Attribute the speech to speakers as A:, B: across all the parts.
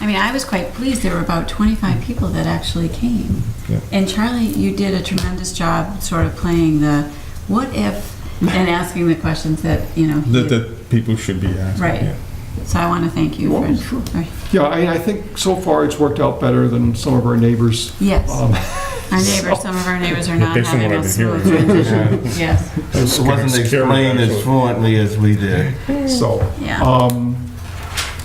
A: I mean, I was quite pleased. There were about 25 people that actually came.
B: Yeah.
A: And Charlie, you did a tremendous job sort of playing the what if and asking the questions that, you know. he-
B: That, that people should be asking.
A: Right.
B: yeah.
A: So I want to thank you
C: Well,
A: for. for-
C: Yeah, I, I think so far it's worked out better than some of our neighbors.
A: Yes.
C: Um,
A: Our neighbors, some of our neighbors are not
B: Oh. Based on
A: having
B: what
A: a
B: I've
A: smooth
B: been hearing.
A: transition. Yes,
D: It wasn't explained as fluently as we did.
C: So,
A: yeah.
B: Oh.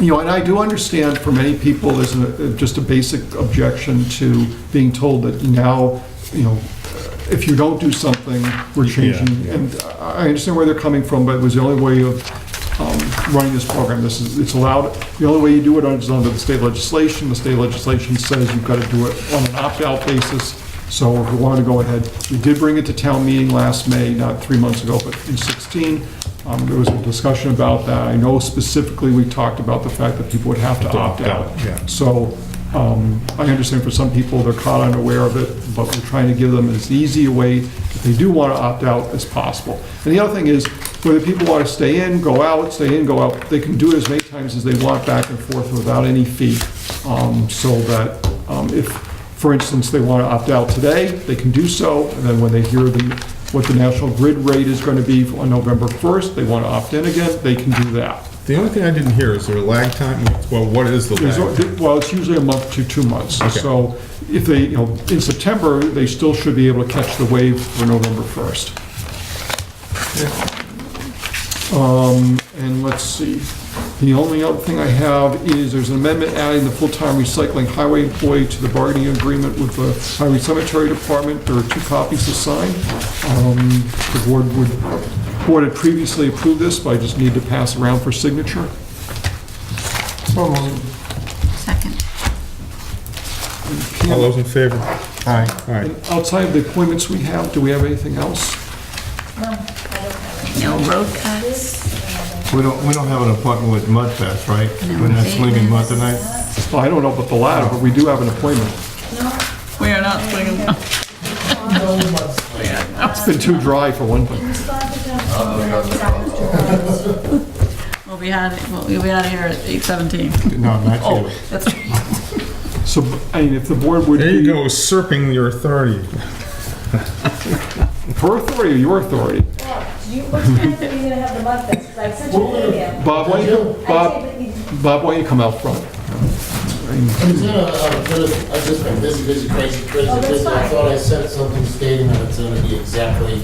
C: you know, and I do understand for many people, there's a- uh, just a basic objection to being told that now, you know, if you don't do something, we're changing.
B: yeah.
C: And I I understand where they're coming from, but it was the only way of um, running this program. This is, it's allowed, the only way you do it is under the state legislation. The state legislation says you've got to do it on an opt-out basis. So if we wanted to go ahead, we did bring it to town meeting last May, not three months ago, but in 16. Um, There was a discussion about that. I know specifically, we talked about the fact that people would have to opt out.
B: yeah.
C: So um, I understand for some people, they're caught unaware of it, but we're trying to give them as easy a way, if they do want to opt out, as possible. And the other thing is, whether people want to stay in, go out, stay in, go out, they can do it as many times as they want back and forth without any fee. Um, So that um, if, for instance, they want to opt out today, they can do so, and then when they hear the, what the national grid rate is going to be on November 1st, they want to opt in again, they can do that.
B: The only thing I didn't hear is there a lag time? Well, what is the
C: There's
B: lag? time?
C: a- Well, it's usually a month to two months.
B: Okay.
C: So if they, you know, in September, they still should be able to catch the wave for November 1st. Um, And let's see, the only other thing I have is there's an amendment adding the full-time recycling highway employee to the bargaining agreement with the Highway Cemetery Department. There are two copies to sign. Um, The board would, board had previously approved this, but I just need to pass around for signature.
D: So moved.
A: Second.
B: All those in favor? All
D: Aye.
B: right.
C: And outside of the appointments we have, do we have anything else?
A: No road cuts.
D: We don't, we don't have an appointment with Mudfest, right?
A: No.
D: We're not swinging mud tonight?
C: Well, I don't know about the latter, but we do have an appointment.
A: We are not swinging.
C: It's been too dry for one thing.
A: We'll be out, we'll be out of here at 8:17.
D: No, not
A: Oh,
D: you.
A: that's,
C: So, I mean, if the board would
B: There you
C: be,
B: go, usurping your authority.
C: her authority or your authority?
E: You, what time are you gonna have the mud fest? 'Cause I sent you an email.
C: Bob, why don't you,
E: I
C: Bob,
E: said, but you-
C: Bob, why don't you come out front?
F: It's in a, a bit of- I've just been busy, busy, crazy, crazy,
E: Oh, that's
F: busy. I
E: fine.
F: thought I said something stating that it's gonna be exactly,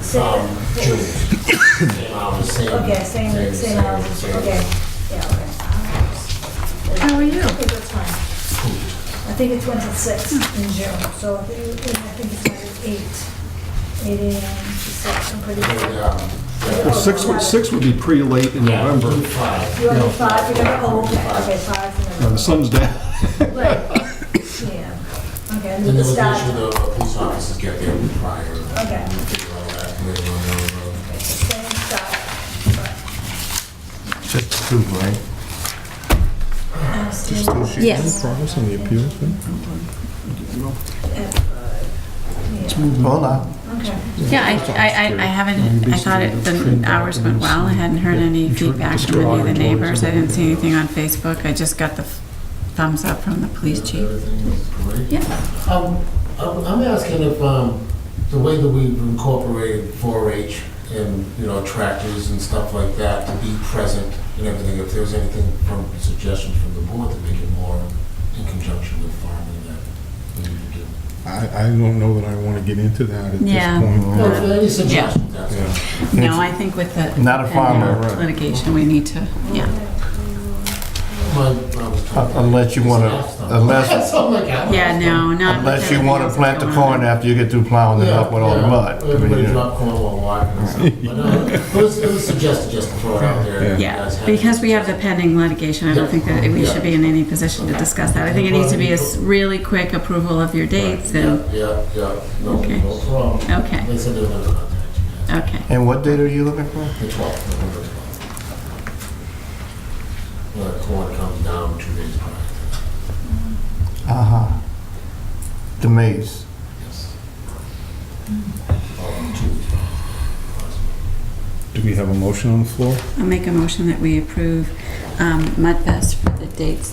E: said-
F: um, June. Same hours, same.
E: Okay, same, same hours,
F: same-
E: okay, yeah, okay.
A: how are you?
E: Okay, that's fine. I think it's went to six in June, so I think it's like eight, eight AM to six, I'm pretty sure.
F: Yeah.
C: Well, six would, six would be pretty late in
F: Yeah,
C: November.
F: Um, June five.
E: You're gonna five, you're gonna, oh, okay, okay, five.
C: Now, The sun's down.
E: Right, yeah, okay, and
F: Then
E: then
F: there
E: the
F: was the issue
E: start,
F: though, of police officers get there prior.
E: Okay.
F: And figure all that, and they run over.
E: same start,
D: Just two, right?
A: Yes.
B: Progress on the appeals, huh?
D: Hold on.
E: okay.
A: Yeah, I, I, I- I haven't, I thought it, the hours went well, I hadn't heard any feedback from any of the neighbors, I didn't see anything on Facebook, I just got the thumbs up from the police chief.
F: Everything was great.
A: Yeah,
F: Um, I'm I'm asking if, um, the way that we've incorporated 4-H and, you know, tractors and stuff like that to be present and everything, if there's anything from, suggestions from the board to make it more in conjunction with farming that we need to do.
B: I, I don't know that I want to get into that at
A: Yeah.
B: this point.
F: No, if there are any suggestions, that's all.
B: Yeah.
A: no, I think with the.
D: Not a farmer,
A: pending
D: right.
A: Litigation, we need to, yeah,
F: My- I was talking-
D: Unless you want to, unless,
F: That's all I got.
A: yeah, no, not. with
D: unless you
A: everything
D: want to
A: else
D: plant the
A: going on.
D: corn after you get through plowing it up with all the
F: Yeah,
D: mud. I mean,
F: Everybody
D: you know.
F: dropped corn while walking and stuff. But no, it was it was suggested just to throw it out there. if you guys
A: Yeah,
F: had
A: because
F: it.
A: we have the pending litigation, I don't think that we should be in any position to discuss that. I think it needs to be a s- really quick approval of your dates and,
F: Yeah, yeah, yeah. No,
A: Okay.
F: no problem.
A: Okay.
F: They said they were gonna contact you guys.
A: okay.
D: And what date are you looking for?
F: The 12th, November 12th. When the corn comes down two days prior.
D: Uh-huh. The maize.
F: Yes. Or two weeks prior.
B: Do we have a motion on the floor?
A: I'll make a motion that we approve um, Mudfest for the dates